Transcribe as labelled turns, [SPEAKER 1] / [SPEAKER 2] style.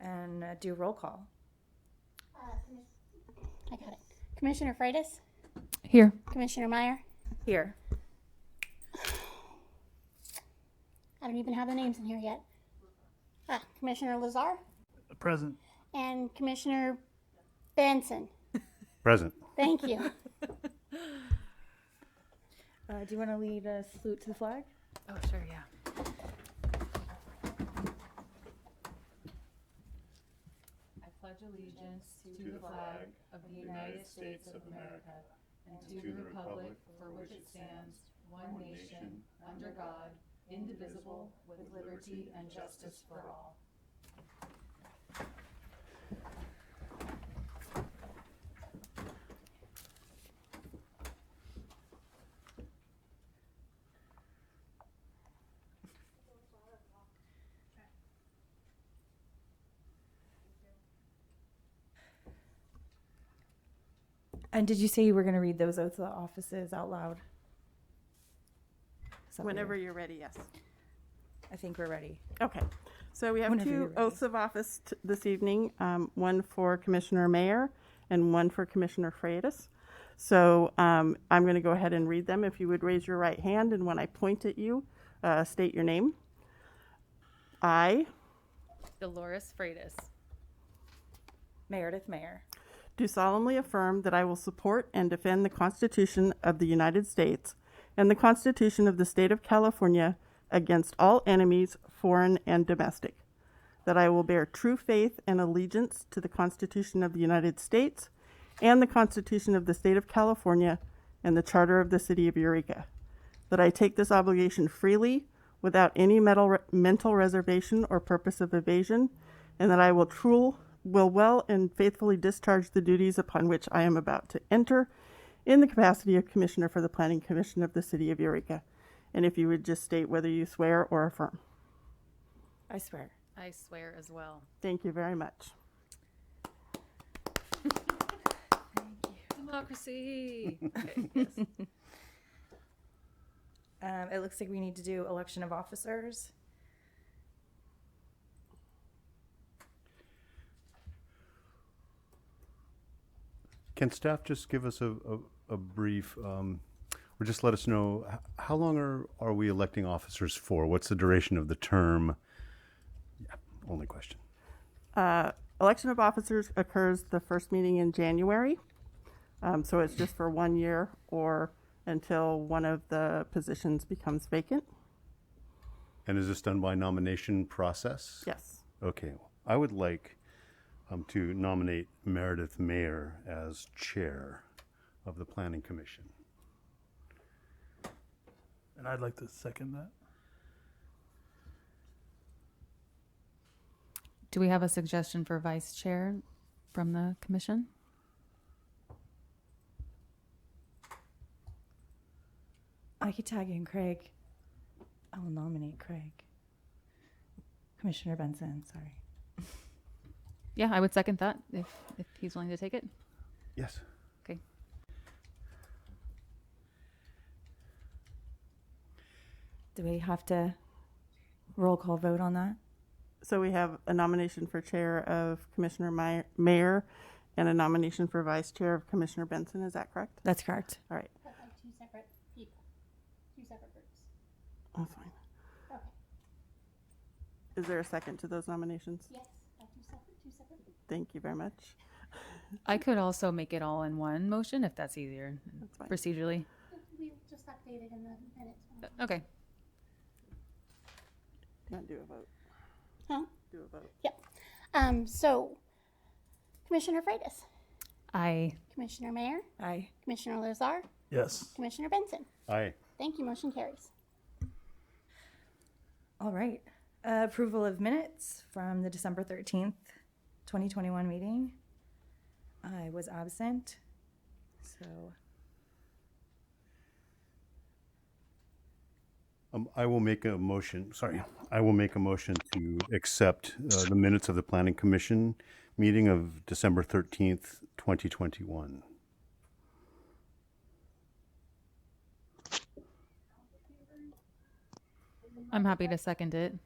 [SPEAKER 1] and uh, do roll call.
[SPEAKER 2] I got it. Commissioner Freitas?
[SPEAKER 3] Here.
[SPEAKER 2] Commissioner Meyer?
[SPEAKER 1] Here.
[SPEAKER 2] I don't even have the names in here yet. Ah, Commissioner Lazar
[SPEAKER 4] Present.
[SPEAKER 2] and Commissioner Benson.
[SPEAKER 5] Present.
[SPEAKER 2] Thank you.
[SPEAKER 1] Uh, do you want to lead a salute to the flag?
[SPEAKER 3] Oh, sure, yeah.
[SPEAKER 6] I pledge allegiance to the flag of the United States of America and to the republic for which it stands, one nation, under God, indivisible, with liberty and justice for all.
[SPEAKER 1] And did you say you were going to read those oaths of offices out loud? Is that what
[SPEAKER 7] Whenever
[SPEAKER 1] you're-
[SPEAKER 7] you're ready, yes.
[SPEAKER 1] I think we're ready.
[SPEAKER 7] Okay. So we have
[SPEAKER 1] Whenever you're
[SPEAKER 7] two
[SPEAKER 1] ready.
[SPEAKER 7] oaths of office t- this evening, um, one for Commissioner Mayer and one for Commissioner Freitas. So um, I'm going to go ahead and read them. If you would raise your right hand, and when I point at you, uh, state your name. I
[SPEAKER 6] Dolores Freitas,
[SPEAKER 1] Meredith Mayer,
[SPEAKER 7] do solemnly affirm that I will support and defend the Constitution of the United States and the Constitution of the State of California against all enemies, foreign and domestic. That I will bear true faith and allegiance to the Constitution of the United States and the Constitution of the State of California and the Charter of the City of Eureka. That I take this obligation freely without any mental, mental reservation or purpose of evasion, and that I will true, will well and faithfully discharge the duties upon which I am about to enter in the capacity of Commissioner for the Planning Commission of the City of Eureka. And if you would just state whether you swear or affirm.
[SPEAKER 1] I swear.
[SPEAKER 6] I swear as well.
[SPEAKER 7] Thank you very much.
[SPEAKER 6] Democracy. Okay, yes.
[SPEAKER 1] Um, it looks like we need to do election of officers.
[SPEAKER 5] Can staff just give us a, a, a brief, um, or just let us know, h- how long are, are we electing officers for? What's the duration of the term? Yeah, only question.
[SPEAKER 7] Uh, election of officers occurs the first meeting in January. Um, so it's just for one year or until one of the positions becomes vacant.
[SPEAKER 5] And is this done by nomination process?
[SPEAKER 7] Yes.
[SPEAKER 5] Okay, I would like um, to nominate Meredith Mayer as chair of the Planning Commission.
[SPEAKER 4] And I'd like to second that.
[SPEAKER 3] Do we have a suggestion for vice chair from the commission?
[SPEAKER 1] I could tag in Craig. I will nominate Craig. Commissioner Benson, sorry.
[SPEAKER 3] Yeah, I would second that if, if he's willing to take it.
[SPEAKER 5] Yes.
[SPEAKER 3] Okay.
[SPEAKER 1] Do we have to roll call vote on that?
[SPEAKER 7] So we have a nomination for chair of Commissioner Meyer- Mayer and a nomination for vice chair of Commissioner Benson. Is that correct?
[SPEAKER 1] That's correct.
[SPEAKER 7] All right.
[SPEAKER 2] That's like two separate people, two separate groups.
[SPEAKER 7] That's fine.
[SPEAKER 2] Okay.
[SPEAKER 7] Is there a second to those nominations?
[SPEAKER 2] Yes, like two separate, two separate groups.
[SPEAKER 7] Thank you very much.
[SPEAKER 3] I could also make it all in one motion if that's easier
[SPEAKER 7] fine.
[SPEAKER 3] procedurally.
[SPEAKER 2] We just updated in the minutes.
[SPEAKER 3] Okay.
[SPEAKER 7] Not do a vote.
[SPEAKER 2] Huh?
[SPEAKER 7] Do a vote.
[SPEAKER 2] Yep. Um, so, Commissioner Freitas,
[SPEAKER 3] I
[SPEAKER 2] Commissioner Mayer,
[SPEAKER 1] Aye.
[SPEAKER 2] Commissioner Lazar,
[SPEAKER 4] Yes.
[SPEAKER 2] Commissioner Benson.
[SPEAKER 5] Aye.
[SPEAKER 2] Thank you. Motion carries.
[SPEAKER 1] All right. Uh, approval of minutes from the December 13th, 2021 meeting. I was absent, so
[SPEAKER 5] Um, I will make a motion, sorry, I will make a motion to accept uh, the minutes of the Planning Commission meeting of December 13th, 2021.
[SPEAKER 3] I'm happy to second it.